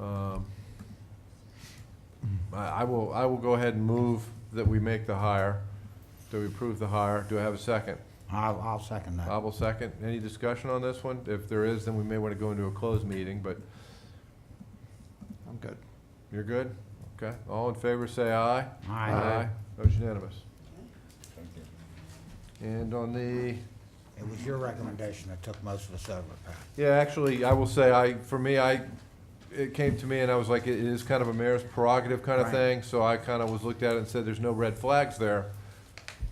Um, I I will, I will go ahead and move that we make the hire, that we approve the hire. Do I have a second? I'll, I'll second Uh-huh. that. Bob will second. Any discussion on this one? If there is, then we may want to go into a closed meeting, but I'm good. you're good? Okay, all in favor, say aye. Aye. That was unanimous. And on the, It was your recommendation that took most of us over, Pat. yeah, actually, I will say, I, for me, I, it came to me and I was like, it is kind of a mayor's prerogative kind of Right. thing, so I kind of was looked at it and said, there's no red flags there.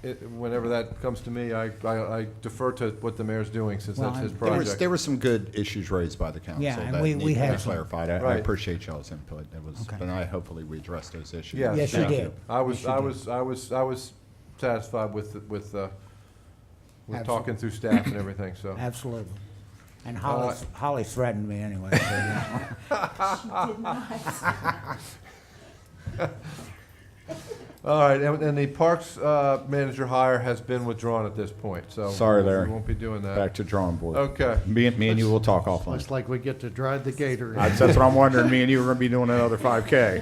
It, whenever that comes to me, I, I I defer to what the mayor's doing, since Well, that's his I'm- project. There was, there were some good issues raised by the council Yeah, and that we- need we to had be some. clarified. I- I Right. appreciate y'all's input. That was, Okay. and I, hopefully we addressed those issues. Yes. Yes, you Thank did. I was, Yes, you I did. was, I was, I was satisfied with, the- with, uh, with Absolutely. talking through staff and everything, so. Absolutely. And Holly, Holly threatened me anyway. so, yeah. All right, and, and the parks, uh, manager hire has been withdrawn at this point, so. Sorry, Larry. We won't be doing Back that. to drawing board. Okay, Me and, me and you will talk Looks offline. like we get to drive the gator. I- That's what I'm wondering. Me and you are gonna be doing another five K.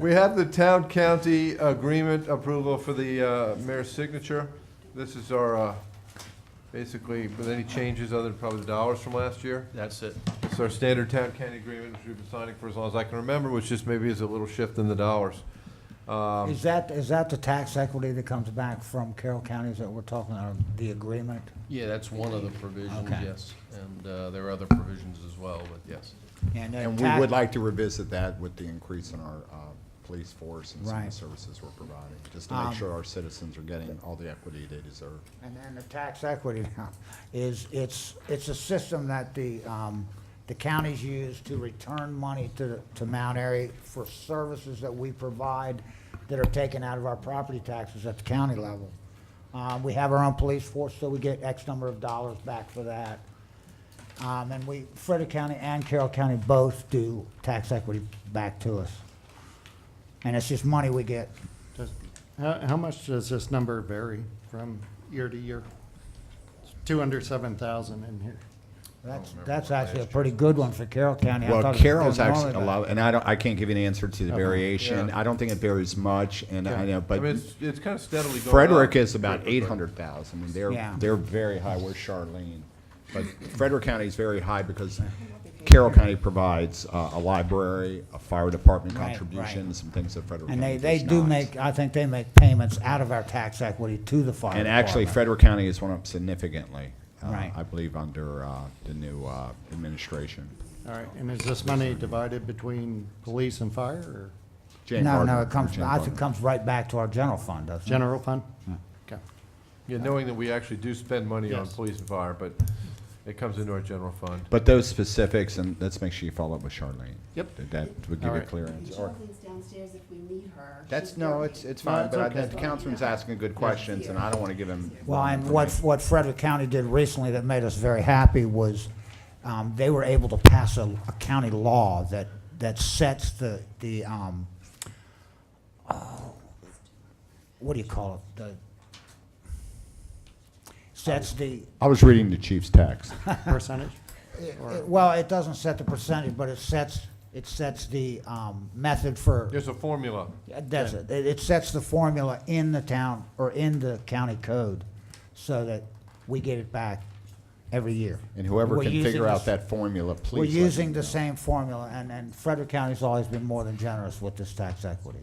we have the town-county agreement approval for the, uh, mayor's signature. This is our, uh, basically, with any changes other than probably the dollars from last year. That's it. It's our standard town county agreement, which we've been signing for as long as I can remember, which just maybe is a little shift in the dollars. Um, Is that, is that the tax equity that comes back from Carroll counties that we're talking about, the agreement? Yeah, that's one of the provisions, Okay. yes. And uh, there are other provisions as well, but yes. And And the we tax, would like to revisit that with the increase in our, uh, police force and some of the Right. services we're providing, just to make Um, sure our citizens are getting all the equity they deserve. and then the tax equity now is, it's, it's a system that the, um, the counties use to return money to, to Mount Airy for services that we provide that are taken out of our property taxes at the county level. Uh, we have our own police force, so we get X number of dollars back for that. Um, and we, Frederick County and Carroll County both do tax equity back to us. And it's just money we get. Does- How, how much does this number vary from year to year? Two hundred seven thousand in here. That's, remember that's what actually a last pretty good one for Carroll County. I Well, thought it was Carroll's doing actually normally, allowed, and I don't, I can't give you an answer to the Okay. variation. Uh-huh. Yeah. I don't think it varies much, and I know, I but. mean, it's, it's kind of steadily going up. Frederick is about eight hundred thousand, I mean, Yeah. they're, they're very high, where's Charlene? But Frederick County is very high because Carroll County provides uh, a library, a fire department Right, right. contribution, some things that Frederick And County they, they does do not. make, I think they make payments out of our tax equity to the fire And actually, department. Frederick County has went up significantly, uh, Right. I believe, under uh, the new uh, administration. All right, and is this money divided between police and fire or Jane No, Gardner, no, or it comes, Jane I think it Gardner. comes right back to our general fund, doesn't it? general fund? Okay. Yeah, knowing that we actually do spend money on Yes. police and fire, but it comes into our general fund. But those specifics, and let's make sure you follow up with Charlene. Yep. That- That would give you a Alright. clear answer. Or- Jonathan's downstairs if we need her. That's, She's no, working. it's, it's fine, it's but I okay. think Councilman's asking good questions, and I don't want to give him. Well, wrong and what, information. what Frederick County did recently that made us very happy was, um, they were able to pass a, a county law that, that sets the, the, um, oh, what do you call it? The, sets the, I was reading the chief's text. Percentage? Or- it- well, it doesn't set the percentage, but it sets, it sets the, um, method for, There's a formula. that's it. It, it sets the formula in the town, or in the county code, so that we get it back every year. And whoever We're can using figure out this- that formula, please. We're let me using know. the same formula, and, and Frederick County's always been more than generous with this tax equity.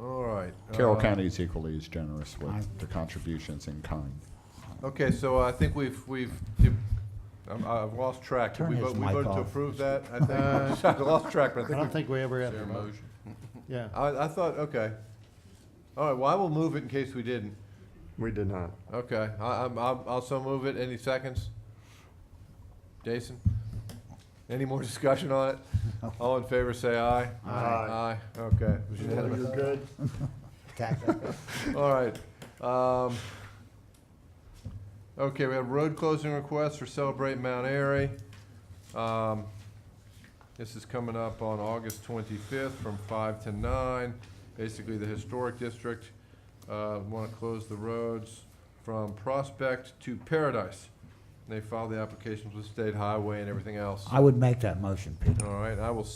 All right. Carroll uh, County is equally as generous I- with the contributions in kind. Okay, so uh, I think we've, we've, you- I'm- I've lost track. Did Turn We his vote- we mic voted to off. approve that, I think. I lost track, but I I don't think, think we ever Is have. there a motion? to- Yeah. I, I thought, okay. All right, well, I will move it in case we didn't. We did not. Okay, I, I'm, I'm- I'll so move it. Any seconds? Jason? Any more discussion on it? All in favor, say aye. Aye. Aye, okay. It was unanimous. good. Tax equity. All right. Um, okay, we have road closing requests for Celebrate Mount Airy. Um, this is coming up on August twenty-fifth from five to nine. Basically, the historic district, uh, wanna close the roads from Prospect to Paradise. And They filed the applications with State Highway and everything else. I would make that motion, Peter. All right, I will